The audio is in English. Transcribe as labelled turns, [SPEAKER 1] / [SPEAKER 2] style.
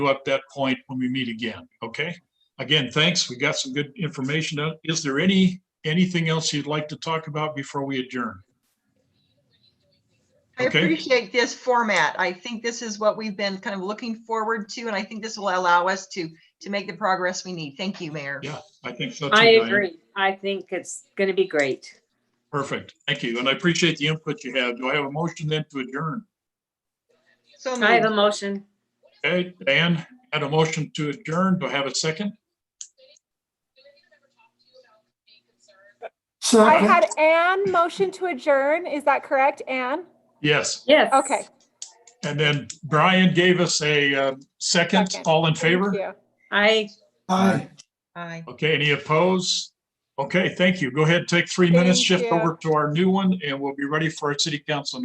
[SPEAKER 1] up that point when we meet again, okay? Again, thanks. We got some good information. Uh, Is there any, anything else you'd like to talk about before we adjourn?
[SPEAKER 2] I
[SPEAKER 1] Okay.
[SPEAKER 2] appreciate this format. I think this is what we've been kind of looking forward to, and I think this will allow us to, to make the progress we need. Thank you, Mayor.
[SPEAKER 1] Yeah. I think so too.
[SPEAKER 3] I
[SPEAKER 1] Diane.
[SPEAKER 3] agree. I think it's going to be great.
[SPEAKER 1] Perfect. Thank you. And I appreciate the input you have. Do I have a motion then to adjourn?
[SPEAKER 2] So
[SPEAKER 3] I have a
[SPEAKER 2] moved.
[SPEAKER 3] motion.
[SPEAKER 1] Okay, Dan had a motion to adjourn. Do I have a second?
[SPEAKER 4] I
[SPEAKER 5] Second,
[SPEAKER 4] had Anne motion to adjourn. Is that correct, Anne?
[SPEAKER 1] Yes.
[SPEAKER 3] Yes.
[SPEAKER 4] Okay.
[SPEAKER 1] And then Brian gave us a uh, second.
[SPEAKER 4] Second.
[SPEAKER 1] All in
[SPEAKER 4] thank
[SPEAKER 1] favor?
[SPEAKER 4] you.
[SPEAKER 3] I,
[SPEAKER 5] aye.
[SPEAKER 2] Aye.
[SPEAKER 1] Okay, any opposed? Okay, thank you. Go ahead, take three
[SPEAKER 4] Thank
[SPEAKER 1] minutes, shift
[SPEAKER 4] you.
[SPEAKER 1] over to our new one, and we'll be ready for our city council